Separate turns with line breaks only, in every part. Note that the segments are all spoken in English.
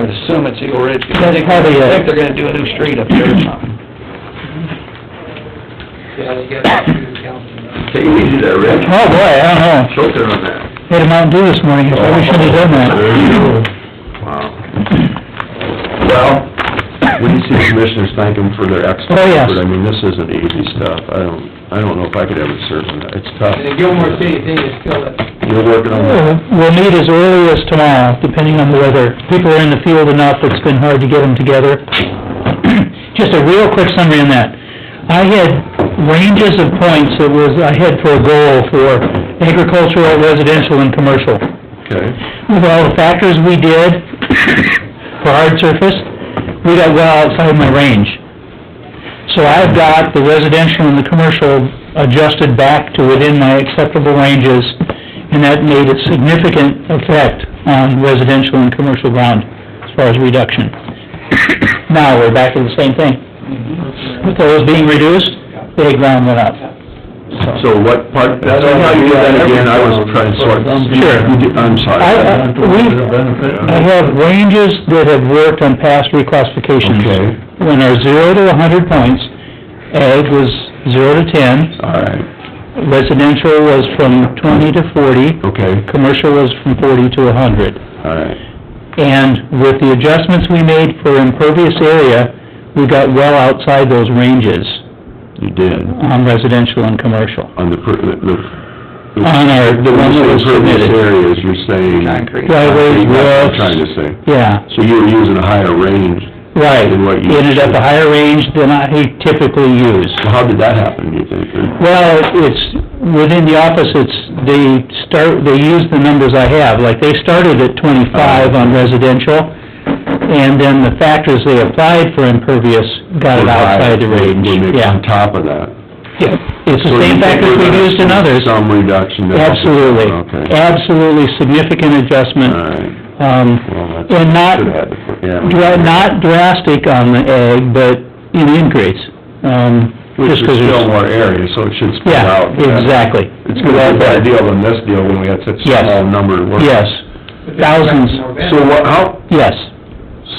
would assume it's Eagle Ridge, 'cause I
That's
think,
probably
I
it.
think they're gonna do a new
Oh,
street up there or something.
Yeah, you got to council.
Take it easy there, Rick.
Oh, boy, I don't know.
Choke there on that.
Hit a Mountain Dew this morning, I probably shouldn't have done
There
that.
you go. Wow. Well, when you see the commissioners, thank them for their excellent
Oh, yes.
effort. I mean, this isn't easy stuff. I don't, I don't know if I could ever serve on that. It's tough.
And the Gilmore City thing is still, a-
You're working on that.
We'll we'll meet as early as tomorrow, depending on the weather. People are in the field enough, it's been hard to get them together. Just a real quick summary on that. I had ranges of points that was, I had for a goal for agricultural, residential, and commercial.
Okay.
With all the factors we did for hard surface, we got well outside my range. So I've got the residential and the commercial adjusted back to within my acceptable ranges, and that made a significant effect on residential and commercial ground as far as reduction. Now, we're back to the same thing. With those being reduced, the ground went up.
So what part, that's how you did that again, I was trying to sort.
Sure.
You did- I'm sorry.
I, I, we, I have ranges that have worked on past reclassifications.
Okay.
When our zero to a hundred points, ag was zero to ten,
All right,
residential was from twenty to forty,
okay,
commercial was from forty to a hundred.
all right.
And with the adjustments we made for impervious area, we got well outside those ranges
You did,
on residential and commercial.
on the, per- the- the...
On our, Uh, the
When
one
you
that
say
was
impervious
submitted.
Areas, you're saying...
Concrete.
Driveways,
That's what
roofs.
I'm Trying to say.
Yeah.
So you were using a higher range.
Right,
Than what you-
ended up a higher range than I typically use.
So how did that happen, do you think? or-
Well, it's, within the office, it's, they start, they use the numbers I have, like, they started at
Oh.
twenty-five on residential, and then the factors they applied for impervious got it outside the range,
Were they
yeah.
On top of that.
Yeah. It's
So
the
you
same
think
factors
we're
we
gonna
used in
see
others,
Some reduction. there?
absolutely,
Okay.
absolutely significant
All
adjustment,
right.
um,
Well, that's...
and not,
Should've had to put- yeah.
dra- not drastic on the egg, but an increase, um,
Which is
just 'cause it's...
still more area, so it should spread
Yeah,
out.
exactly.
It's gonna be a better deal than this deal when we had such a
Yes.
small number to work with.
Yes, thousands,
So what, how,
yes.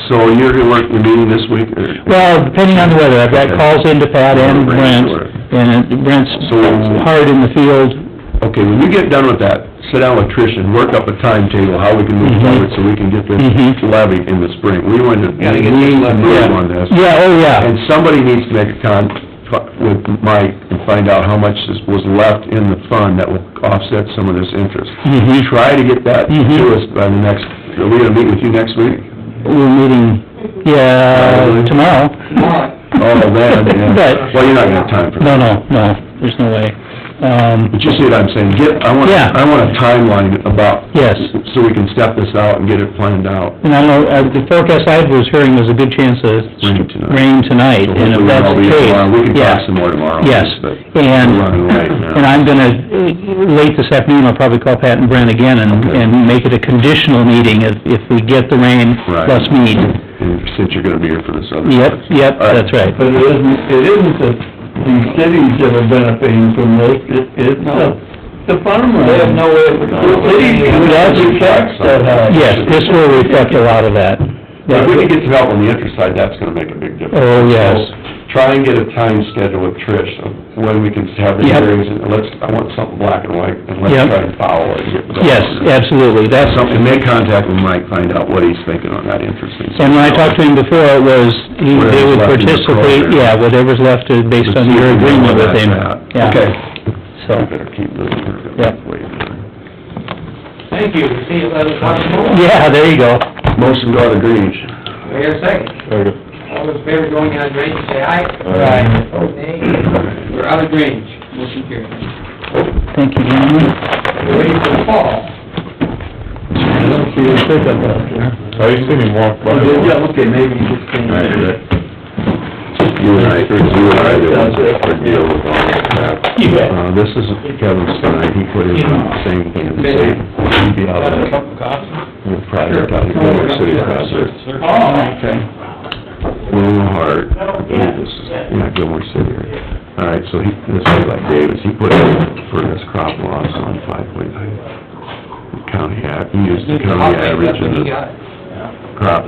so you're gonna work the meeting this week, or?
Well, depending on the weather, I've got
Okay.
calls into Pat and Brent, and Brent's
So-
hard in the field.
Okay, when you get done with that, sit down with Trish and work up a timetable, how we can move
Mhm.
forward so we can get this
Mhm.
levy in the spring. We want to, we
Gotta get this
need to
levy.
move on this.
Yeah, oh, yeah,
And somebody needs to make a con, with Mike and find out how much is- was left in the fund that will offset some of this interest.
Mhm.
Try to get that to
Mhm.
us by the next, are we gonna meet with you next week?
we're meeting, yeah, tomorrow.
tomorrow,
Oh, man, yeah.
But-
Well, you're not gonna have time for that.
No, no, no, there's no way. Um,
But you see what I'm saying, get, I want,
Yeah.
I want a timeline about...
Yes.
So we can step this out and get it planned out.
and I know, uh, the forecast I was hearing was a good chance of
Rain tonight.
rain tonight, and if
Hopefully
that's
I'll
the
be
case...
tomorrow. We can
yeah.
talk some more tomorrow. on
Yes,
this, but
and,
we're running late now.
and I'm gonna, uh, late this afternoon, I'll probably call Pat and Brent again and,
Okay.
and make it a conditional meeting if, if we get the rain
Right.
plus meet.
And since you're gonna be here for this other...
Yep, yep,
All right.
that's right.
But it isn't, it isn't the, the cities that are benefiting from this, it, it's the, the farmers.
They have no way of
The cities,
That's-
the tax that high.
Yes, this will reflect a lot of that.
But if we can get some help on the interest side, that's gonna make a big difference.
Oh, yes.
So, Try and get a time schedule with Trish, of when we can have the
Yep.
hearings, and let's, I want something black and white, and let's
Yep.
try and follow it. and get-
Yes, absolutely, that's,
Something, make contact with Mike, find out what he's thinking on that interest.
and when I talked to him before, it was, he- they
Whatever's
would
left in the
participate,
program.
yeah, whatever's left is based on your agreement with him. Yeah.
Okay.
So,
We better keep moving.
Yeah.
thank you, see you later, talk tomorrow.
yeah, there you go.
Motion to go to Greenwich.
Wait a second, all those in favor going out of range, say aye. Nay. We're out of range, motion carried.
Thank you, gentlemen.
We're Ready for the fall.
I don't see a pickup out there.
I used to see him walk by.
Yeah, okay, maybe you just can't.
You and I, you and I, did
Sounds good.
a deal with all that.
Yeah.
Uh, this is Kevin Stein, he put in the same thing, and say, he'd be out
Got a
there,
cup of coffee?
you know, private, out of Gilmore Uh, City project.
Oh, okay.
William Hart, I believe this is, yeah, Gilmore City. right? All right, so he, this guy like Davis, he put in for his crop loss on five uh, point nine. County, a- he used the county average and the crop